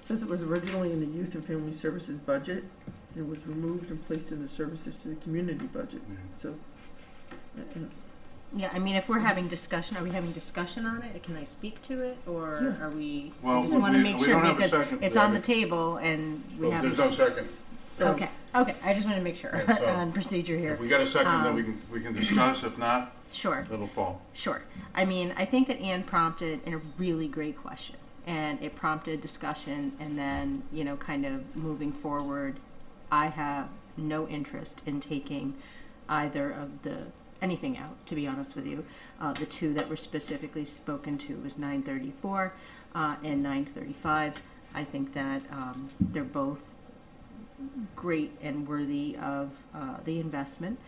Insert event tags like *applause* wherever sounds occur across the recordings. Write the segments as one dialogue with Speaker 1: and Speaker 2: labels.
Speaker 1: Says it was originally in the Youth and Family Services budget, and it was removed and placed in the Services to the Community budget, so. uh, uh,
Speaker 2: Yeah, I mean, if we're having discussion, are we having discussion on it? Can I speak to it, or
Speaker 1: Yeah.
Speaker 2: are we?
Speaker 3: Well,
Speaker 2: I just
Speaker 3: we-
Speaker 2: want to
Speaker 3: we-
Speaker 2: make
Speaker 3: we
Speaker 2: sure
Speaker 3: don't have a
Speaker 2: because
Speaker 3: second
Speaker 2: it's
Speaker 3: to
Speaker 2: on the
Speaker 3: that.
Speaker 2: table and we
Speaker 3: Well,
Speaker 2: have.
Speaker 3: Oh, There's no second.
Speaker 1: no.
Speaker 2: Okay, okay. I just want to make sure
Speaker 3: Yeah, so-
Speaker 2: *laughs* on procedure here.
Speaker 3: If we got a second, then we can, we can discuss. If not,
Speaker 2: Sure.
Speaker 3: it'll fall.
Speaker 2: Sure. I mean, I think that Anne prompted in a really great question, and it prompted discussion, and then, you know, kind of moving forward, I have no interest in taking either of the anything out to be honest with you uh, the two that were specifically spoken to was 934 uh, and 935 i think that um, they're both great and worthy of uh, the investment,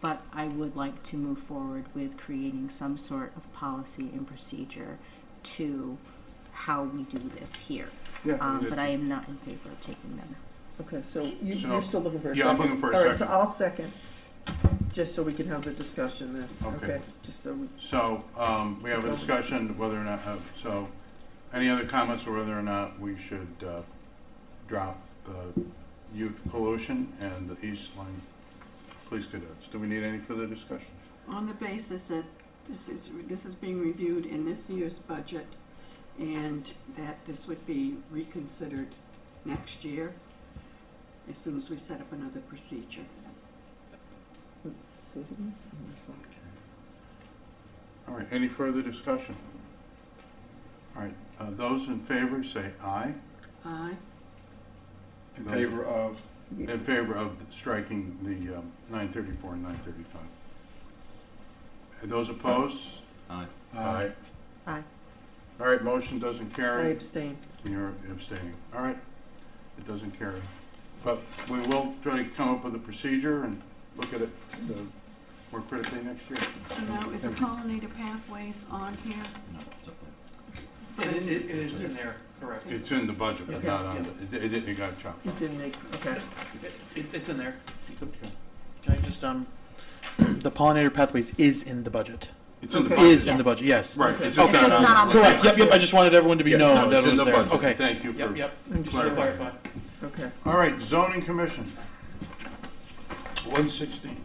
Speaker 2: but I would like to move forward with creating some sort of policy and procedure to how we do this here.
Speaker 3: Yeah,
Speaker 2: Um,
Speaker 3: we
Speaker 2: but
Speaker 3: did.
Speaker 2: I am not in favor of taking them out.
Speaker 1: Okay, so you,
Speaker 3: So-
Speaker 1: you're still looking for a second?
Speaker 3: Yeah, I'm looking for a
Speaker 1: All right, so
Speaker 3: second.
Speaker 1: I'll second, just so we can have the discussion then,
Speaker 3: Okay.
Speaker 1: okay? Just so we,
Speaker 3: So, um, we have a discussion whether or not, uh, so, any other comments or whether or not we should, uh, drop the youth pollution and the East Line Police Cadets? Do we need any further discussion?
Speaker 4: on the basis that this is, this is being reviewed in this year's budget and that this would be reconsidered next year as soon as we set up another procedure.
Speaker 3: All right, any further discussion? All right, uh, those in favor say aye.
Speaker 4: Aye,
Speaker 5: In
Speaker 3: Those-
Speaker 5: favor of,
Speaker 3: In favor of striking the um, 934 and 935. And those opposed?
Speaker 6: Aye.
Speaker 5: uh,
Speaker 2: Aye.
Speaker 3: All right, motion doesn't
Speaker 1: I
Speaker 3: carry.
Speaker 1: abstain.
Speaker 3: You're abstaining. All right, it doesn't carry. But we will try to come up with a procedure and look at it uh, more critically next year.
Speaker 4: so now is the pollinator pathways on here?
Speaker 6: No, it's up there.
Speaker 7: It, it it is in there, correct. It,
Speaker 3: It's in the budget, but
Speaker 7: Okay.
Speaker 3: not on, the- it, it it got chopped.
Speaker 1: It didn't make, okay.
Speaker 7: it- it's in there.
Speaker 3: Okay.
Speaker 7: Can I just, um, *clears throat* the pollinator pathways is in the budget.
Speaker 3: It's in the
Speaker 1: Okay.
Speaker 3: budget.
Speaker 7: Is in the
Speaker 2: Yes.
Speaker 7: budget, yes.
Speaker 3: Right.
Speaker 7: Okay. It's
Speaker 2: just not on
Speaker 3: list.
Speaker 2: the
Speaker 7: Correct, yep, yep, I just wanted everyone to be
Speaker 3: Yeah, no,
Speaker 7: known that
Speaker 3: it's
Speaker 7: it
Speaker 3: in
Speaker 7: was
Speaker 3: the
Speaker 7: there.
Speaker 3: budget.
Speaker 7: Okay,
Speaker 3: Thank you
Speaker 7: yep,
Speaker 3: for
Speaker 7: yep,
Speaker 1: Understood.
Speaker 3: clarifying.
Speaker 7: clarify.
Speaker 1: Okay.
Speaker 3: All right, zoning commission. One sixteen.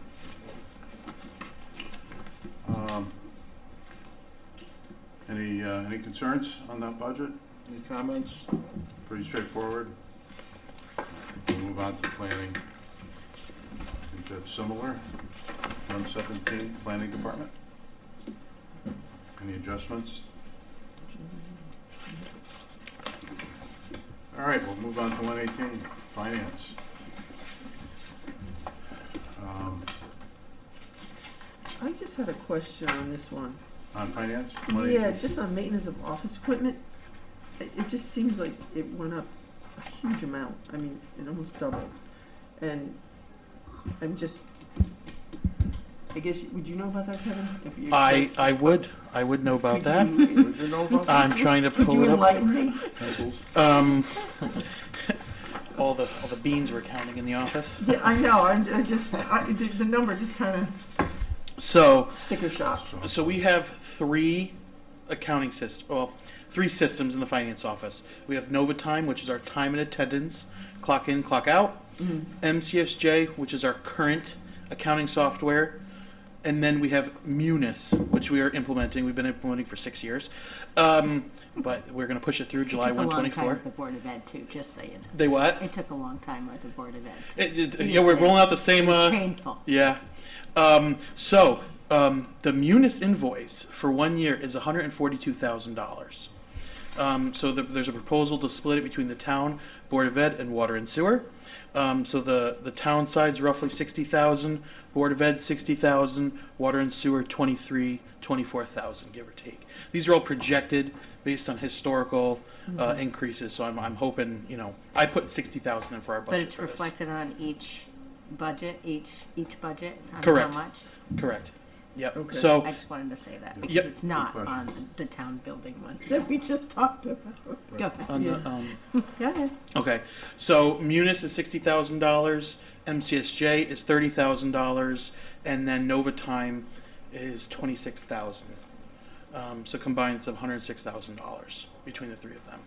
Speaker 3: Um, Any, uh, any concerns on that budget? Any comments? Pretty straightforward. We'll move on to planning. I think that's similar. One seventeen, planning department. Any adjustments? All right, we'll move on to one eighteen, finance. Um,
Speaker 1: I just had a question on this one.
Speaker 3: On finance? 118?
Speaker 1: Yeah, just on maintenance of office equipment, it, it just seems like it went up a huge amount. I mean, it almost doubled. And I'm just, I guess, would you know about that, Kevin? If you-
Speaker 7: I, I would, I would know about that.
Speaker 3: Mm-hmm.
Speaker 1: Would you-
Speaker 3: Did you know about that?
Speaker 7: I'm trying to
Speaker 1: Would
Speaker 7: pull
Speaker 1: you
Speaker 7: it up.
Speaker 1: enlighten me?
Speaker 5: pencils.
Speaker 3: *laughs*
Speaker 7: Um, *laughs* all the, all the beans we're counting in the office.
Speaker 1: *laughs* Yeah, I know, I'm, I just, I, the, the number just kinda
Speaker 7: So,
Speaker 1: sticker shock.
Speaker 3: So-
Speaker 7: So we have three accounting systems, well, three systems in the finance office. We have NovaTime, which is our time and attendance, clock in, clock out.
Speaker 2: Mm-hmm.
Speaker 7: MCSJ, which is our current accounting software. And then we have Munis, which we are implementing. We've been implementing for six years. Um, but we're going to push it through
Speaker 2: It
Speaker 7: July
Speaker 2: took a long time
Speaker 7: 124.
Speaker 2: at the Board of Ed too, just so you know.
Speaker 7: They what?
Speaker 2: It took a long time at the Board of Ed. too.
Speaker 7: It- it-
Speaker 2: It
Speaker 7: yeah, we're
Speaker 2: did.
Speaker 7: rolling out the same.
Speaker 2: It was
Speaker 7: Uh,
Speaker 2: painful.
Speaker 7: Yeah. Um, so um, the Munis invoice for one year is one hundred and forty-two thousand dollars. Um, so the, there's a proposal to split it between the town board of ed and water and sewer. Um, so the the town side's roughly sixty thousand, board of ed sixty thousand, water and sewer 23, 24,000, give or take. These are all projected based on historical uh,
Speaker 2: Mm-hmm.
Speaker 7: increases. So I'm, I'm hoping you know I put sixty thousand in for our budget.
Speaker 2: But it's
Speaker 7: for this.
Speaker 2: reflected on each budget, each, each budget, on how
Speaker 7: Correct.
Speaker 2: much.
Speaker 7: Correct. Yep.
Speaker 1: Okay.
Speaker 7: So
Speaker 2: I just wanted to say that,
Speaker 7: Yep.
Speaker 2: because it's not
Speaker 3: Good
Speaker 2: on
Speaker 3: question.
Speaker 2: the- the town building one that we just talked about. Go ahead.
Speaker 7: on the um,
Speaker 2: Go ahead.
Speaker 7: Okay, so Munis is sixty thousand dollars, MCSJ is thirty thousand dollars, and then Nova Time is twenty six thousand. Um, so combined, it's one hundred six thousand dollars between the three of them.